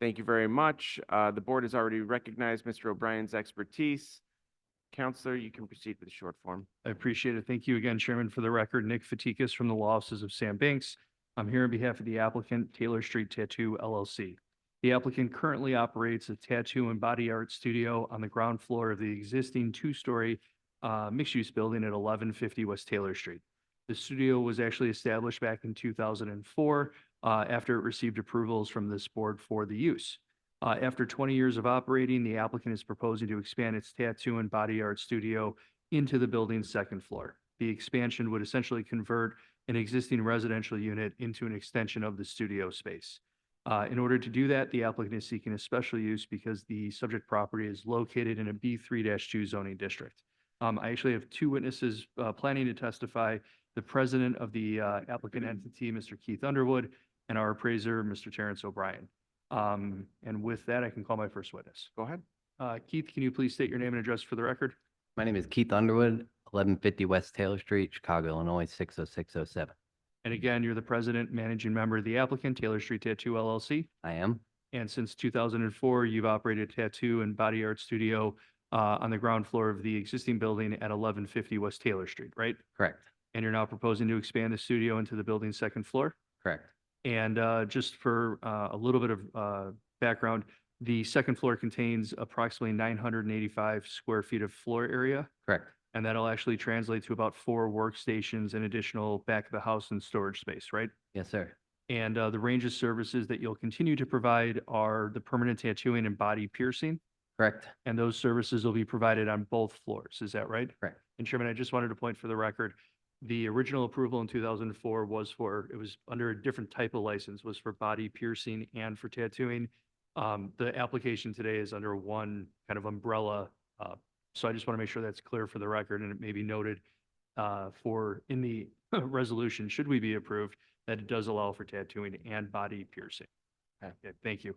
Thank you very much. Uh, The board has already recognized Mr. O'Brien's expertise. Counselor, you can proceed with the short form. I appreciate it. Thank you again, Chairman, for the record. Nick Fatikas from the Law Offices of Sam Banks. I'm here on behalf of the applicant Taylor Street Tattoo LLC. The applicant currently operates a tattoo and body art studio on the ground floor of the existing two-story uh, mixed-use building at eleven fifty West Taylor Street. The studio was actually established back in two thousand and four uh, after it received approvals from this board for the use. Uh, After twenty years of operating, the applicant is proposing to expand its tattoo and body art studio into the building's second floor. The expansion would essentially convert an existing residential unit into an extension of the studio space. Uh, In order to do that, the applicant is seeking a special use because the subject property is located in a B3-2 zoning district. Um, I actually have two witnesses uh, planning to testify, the president of the uh, applicant entity, Mr. Keith Underwood, and our appraiser, Mr. Terrence O'Brien. Um, And with that, I can call my first witness. Go ahead. Uh, Keith, can you please state your name and address for the record? My name is Keith Underwood, eleven fifty West Taylor Street, Chicago, Illinois, six oh six oh seven. And again, you're the president, managing member of the applicant, Taylor Street Tattoo LLC. I am, And since two thousand and four, you've operated a tattoo and body art studio uh, on the ground floor of the existing building at eleven fifty West Taylor Street, right? correct, And you're now proposing to expand the studio into the building's second floor? correct. And uh, just for uh, a little bit of uh, background, the second floor contains approximately nine hundred and eighty-five square feet of floor area. Correct. And that'll actually translate to about four workstations and additional back of the house and storage space, right? Yes, sir. And uh, the range of services that you'll continue to provide are the permanent tattooing and body piercing. Correct. And those services will be provided on both floors. Is that right? Correct. And Chairman, I just wanted to point for the record, the original approval in two thousand and four was for, it was under a different type of license, was for body piercing and for tattooing. Um, the application today is under one kind of umbrella. Uh, so I just want to make sure that's clear for the record and it may be noted uh, for, in the resolution, should we be approved, that it does allow for tattooing and body piercing. Okay. Okay, thank you.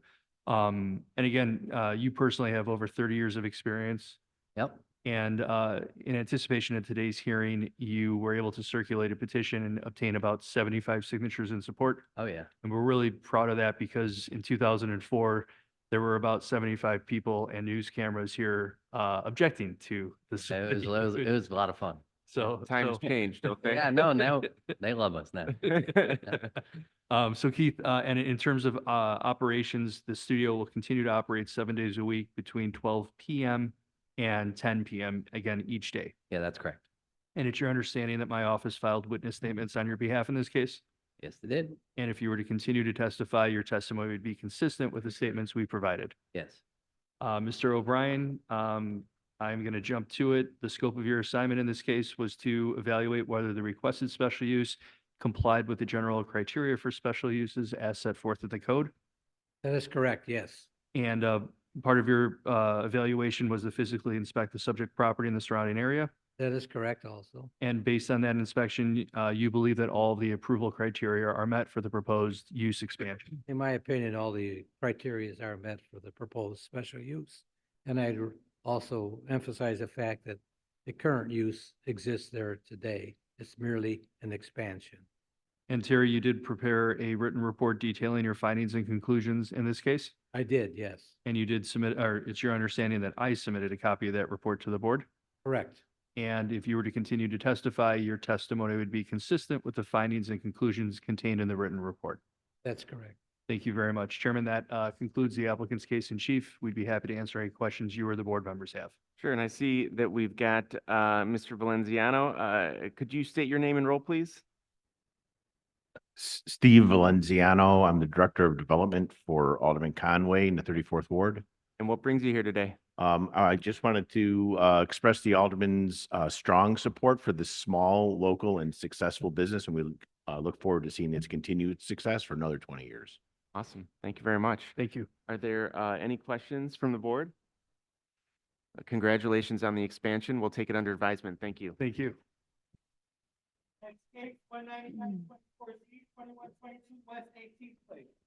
Um, and again, uh, you personally have over thirty years of experience. Yep, And, uh, in anticipation of today's hearing, you were able to circulate a petition and obtain about seventy-five signatures in support. oh yeah, And we're really proud of that because in two thousand and four, there were about seventy-five people and news cameras here, uh, objecting to this. it was, it was, it was a lot of fun. So. Times so- change, don't they? Uh, Yeah, no, now, they love us now. Um, so Keith, uh, and in terms of, uh, operations, the studio will continue to operate seven days a week between twelve PM and ten PM, again, each day. Yeah, that's correct. And it's your understanding that my office filed witness statements on your behalf in this case? Yes, they did. And if you were to continue to testify, your testimony would be consistent with the statements we provided. Yes. Uh, Mr. O'Brien, um, I'm going to jump to it. The scope of your assignment in this case was to evaluate whether the requested special use complied with the general criteria for special uses as set forth in the code. That is correct, yes. And, uh, part of your, uh, evaluation was to physically inspect the subject property in the surrounding area. That is correct also. And based on that inspection, uh, you believe that all the approval criteria are met for the proposed use expansion. In my opinion, all the criterias are met for the proposed special use. And I'd r- also emphasize the fact that the current use exists there today. It's merely an expansion. And Terry, you did prepare a written report detailing your findings and conclusions in this case? I did, yes, And you did submit, or it's your understanding that I submitted a copy of that report to the board? correct. And if you were to continue to testify, your testimony would be consistent with the findings and conclusions contained in the written report. That's correct. Thank you very much. Chairman, that uh, concludes the applicant's case in chief. We'd be happy to answer any questions you or the board members have. Sure, and I see that we've got uh, Mr. Valenziano. Uh, Could you state your name and role, please? S- Steve Valenziano. I'm the Director of Development for Alderman Conway in the 34th Ward. And what brings you here today? Um, I just wanted to, uh, express the Alderman's, uh, strong support for this small, local and successful business. And we, uh, look forward to seeing its continued success for another 20 years. Awesome, thank you very much. Thank you. Are there uh, any questions from the board? Uh, Congratulations on the expansion. We'll take it under advisement. Thank you. Thank you. Next case, one ninety-nine, twenty-four Z, twenty-one, twenty-two, West Eighteenth Place.